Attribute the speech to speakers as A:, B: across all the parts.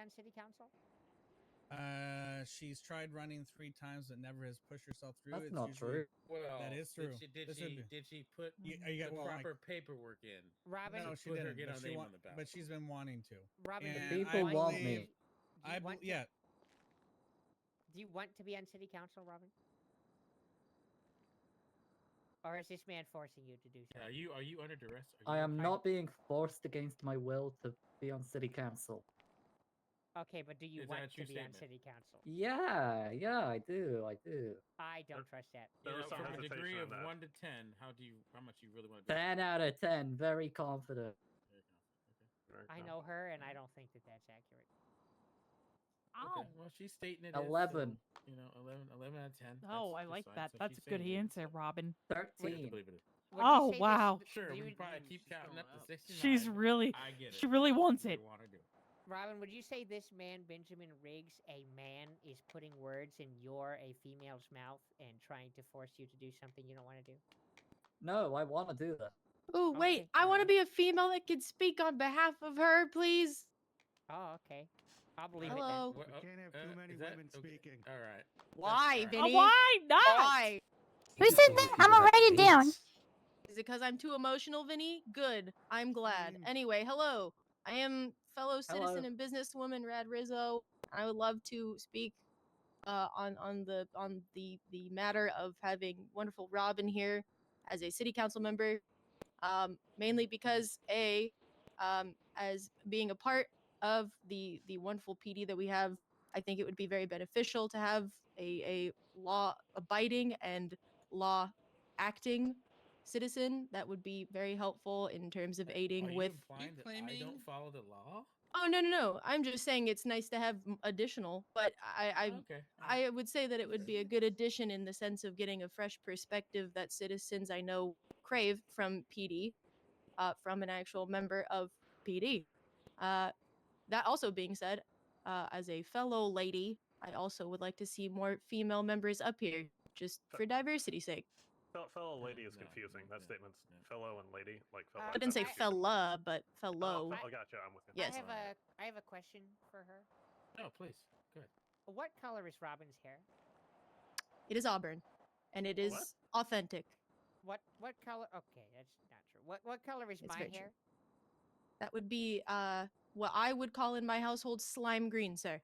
A: on city council?
B: Uh, she's tried running three times but never has pushed herself through.
C: That's
B: It's
C: not
B: usually-
C: true.
D: Well,
B: is
D: did
B: true.
D: she- Did
B: This would
D: she,
B: be-
D: did she put
B: You, uh, you
D: the
B: got well, like,
D: proper paperwork in?
A: Robin,
B: no,
D: to
B: she
D: put her-
B: didn't.
D: get
B: but
D: her
B: she
D: name
B: wa-
D: on the ballot.
B: but she's been wanting to.
A: Robin,
B: and
A: do you
C: People
A: want
C: want
A: to
C: me.
A: be- Do you,
B: I bel-
A: want to,
B: yeah,
A: do you want to be on city council, Robin? Or is this man forcing you to do so?
D: Are you are you under duress? Are
C: I
D: you-
C: am not being forced against my will to be on city council.
A: Okay, but do you
D: Is that a
A: want to
D: true
A: be
D: statement?
A: on city council?
C: Yeah, yeah, I do, I do.
A: I don't trust that.
D: You
E: There
D: know,
E: was some
D: from a
E: hesitation
D: degree
E: on
D: of
E: that.
D: one to ten, how do you how much you really want to?
C: Ten out of ten, very confident.
A: I know her, and I don't think that that's accurate.
F: Oh,
D: Well, she's stating it. is, so,
C: Eleven.
D: you know, 11, 11 out of ten.
F: oh,
D: that's
F: I like
D: decide,
F: that.
D: so
F: That's
D: she's
F: a good
D: saying it is.
F: answer, Robin.
D: We're gonna
C: Thirteen.
D: believe it is.
A: Would you
F: Oh,
A: say this-
F: wow.
A: th-
D: Sure,
A: you
D: we
A: would-
D: probably
E: Ooh,
D: keep
E: she's
D: counting
E: going
D: up to
E: up.
D: sixty-nine.
F: She's really,
D: I get it.
F: she really wants
D: You
F: it.
D: wanna do it.
A: Robin, would you say this man, Benjamin Riggs, a man, is putting words in your, a female's mouth, and trying to force you to do something you don't want to do?
C: No, I want to do that.
G: Oh, wait.
A: Okay,
G: I want to
A: alright.
G: be a female that can speak on behalf of her, please.
A: Oh, okay. I'll believe it.
G: Hello.
D: What- oh,
E: We can't have too
D: uh,
E: many
D: is that-
E: women
D: okay,
E: speaking.
D: All right.
G: Why,
D: alright.
F: Uh,
G: Vinny?
F: Why not?
G: Why?
H: Who said that? I'm gonna write it down.
G: Is it because I'm too emotional, Vinny? Good. I'm glad.
E: mean-
G: Anyway, hello. I am fellow citizen
C: Hello.
G: and businesswoman Rad Rizzo. I would love to speak uh, on on the on the the matter of having wonderful Robin here as a city council member, um, mainly because a um, as being a part of the the wonderful PD that we have, I think it would be very beneficial to have a a law abiding and law acting citizen that would be very helpful in terms of
D: Uh, are
G: aiding
D: you
G: with
D: implying that I
H: claiming-
D: don't follow the law.
G: oh no no no i'm just saying it's nice to have m- additional but i i
D: okay.
G: I would say that it would be a good addition in the sense of getting a fresh perspective that citizens I know crave from PD, uh, from an actual member of PD. Uh, that also being said, uh, as a fellow lady, I also would like to see more female members up here, just for diversity's sake.
E: Fel- fellow lady is
D: No,
E: confusing.
D: no,
E: That statement's
D: no.
E: fellow and lady, like fellow.
A: I
G: I didn't say
A: appreciate it.
G: fella, but
E: Oh,
G: fellow.
E: I gotcha. I'm with you.
G: Yes.
A: I have
D: Alright.
A: a, I have a question for her.
D: No, please. Go ahead.
A: What color is Robin's hair?
G: It is Auburn, and it is
E: What?
G: authentic.
A: What, what color? Okay, that's not true. What, what color is
G: It's
A: my
G: very true.
A: hair?
G: That would be uh, what I would call in my household slime green, sir.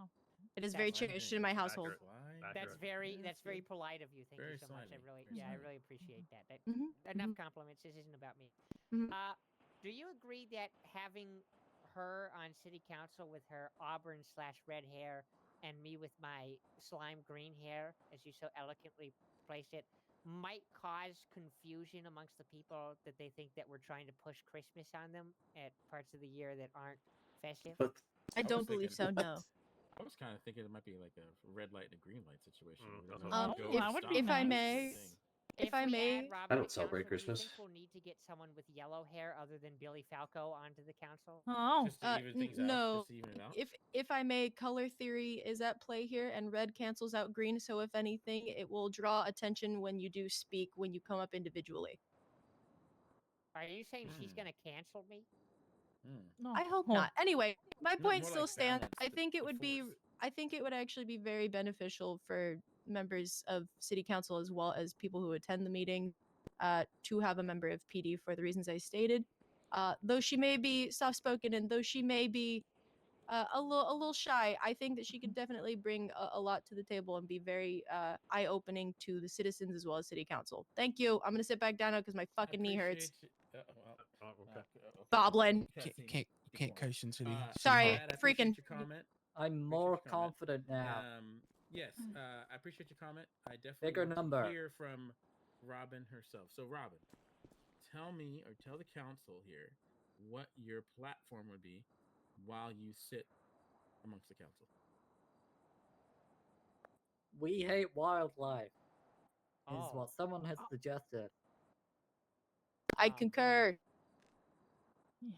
F: Oh,
G: It is
A: that's
G: very
A: fine.
G: cherished in my household.
E: Accurate.
D: Why?
E: That's
A: That's
E: Accurate.
A: very,
D: Yeah,
A: that's
D: it's
A: very
D: very-
A: polite of you. Thank
D: very
A: you so much. I
D: slimy,
A: really,
D: very
A: yeah, I
D: slimy.
A: really appreciate that. that
G: Mhm,
A: Enough compliments. This isn't about me.
G: Mhm.
A: Uh, do you agree that having her on city council with her auburn slash red hair and me with my slime green hair, as you so eloquently placed it, might cause confusion amongst the people that they think that we're trying to push Christmas on them at parts of the year that aren't festive?
C: But
G: I
D: was
G: don't believe so.
D: thinking-
G: No.
D: I was kind of thinking it might be like a red light and a green light situation.
E: Mm,
D: where there's
E: that's
D: no
G: Um,
D: go stop
G: if-
F: That would be
D: sign, that's the
G: nice.
D: thing.
G: If I
A: we add
G: may-
A: Robin
I: I
A: to
I: don't celebrate
A: council, Do you
I: Christmas.
A: think we'll need to get someone with yellow hair other than Billy Falco onto the council?
F: Oh,
D: Just to
G: Uh,
D: even
G: n-
D: things out,
G: no,
D: just to even it out.
G: If if I may, color theory is at play here, and red cancels out green. So if anything, it will draw attention when you do speak when you come up individually.
A: Are you saying she's
D: Mm.
I: Hmm.
A: going to cancel me?
D: Mm.
F: no.
G: I hope
F: Oh,
G: not. Anyway, my
D: No,
G: point
D: more
G: still
D: like
G: stands.
D: balance
G: I
D: the-
G: think
D: the
G: it would be.
D: force.
G: I think it would actually be very beneficial for members of city council as well as people who attend the meeting uh, to have a member of PD for the reasons I stated. Uh, though she may be soft spoken and though she may be uh, a little a little shy, I think that she could definitely bring a, a lot to the table and be very uh, eye opening to the citizens as well as city council. Thank you. I'm gonna sit back down now because my
D: I
G: fucking knee hurts.
D: appreciate you- uh, well,
E: Oh, okay.
D: uh, okay.
G: Boblin.
D: Yeah,
H: Can't,
D: see,
H: can't,
D: keep
H: can't
D: going.
H: coach until you.
D: Uh,
G: Sorry,
D: Brad, I
G: freaking-
D: appreciate your comment.
C: I'm more
D: comment.
C: confident now.
D: Um, yes,
F: Mm.
D: uh, I appreciate your comment. I definitely
C: Bigger
D: want to
C: number.
D: hear from Robin herself. So, Robin, tell me or tell the council here what your platform would be while you sit amongst the council.
C: We hate wildlife, is
A: Oh.
C: what someone has suggested.
G: I
A: Um,
G: concur.
F: Yes.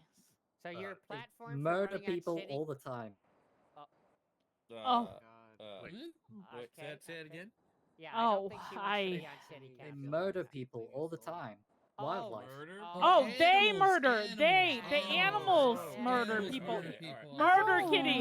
A: So your
E: Uh, they
A: platform for
C: Murder
A: running on
C: people
A: city-
C: all the time.
F: Oh.
D: uh, wait,
E: Wait.
D: say,
A: Mm. Oh, Okay,
D: it- say it
A: okay.
D: again.
A: Yeah, I don't
F: Oh,
A: think she wants to be
F: I-
A: on city
C: They
A: council.
C: murder people all the time.
A: Oh,
C: Wildlife.
D: Murder?
F: Oh, they
H: Animals,
F: murder. They, the
H: animals.
F: animals
A: Oh,
F: murder
A: animals
F: people.
D: murder people.
F: Murder
H: Oh.
F: kitties.